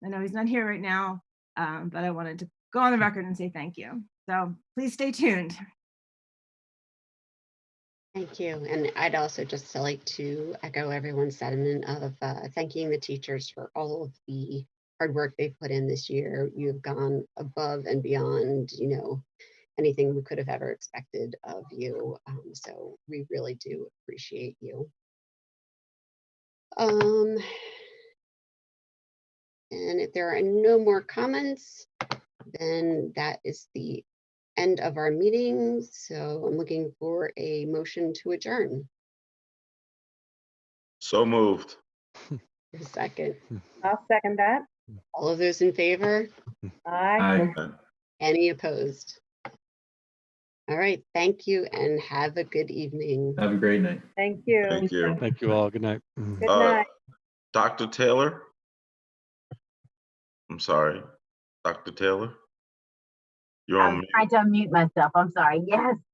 know he's not here right now, um, but I wanted to go on the record and say thank you. So please stay tuned. Thank you. And I'd also just like to echo everyone's sentiment of uh, thanking the teachers for all of the hard work they've put in this year. You've gone above and beyond, you know, anything we could have ever expected of you. Um, so we really do appreciate you. Um, and if there are no more comments, then that is the end of our meeting. So I'm looking for a motion to adjourn. So moved. A second. I'll second that. All of those in favor? Aye. Any opposed? All right, thank you and have a good evening. Have a great night. Thank you. Thank you. Thank you all. Good night. Good Uh, night. Dr. Taylor? I'm sorry, Dr. Taylor? You're on I'm mute. trying to unmute myself. I'm sorry. Yes,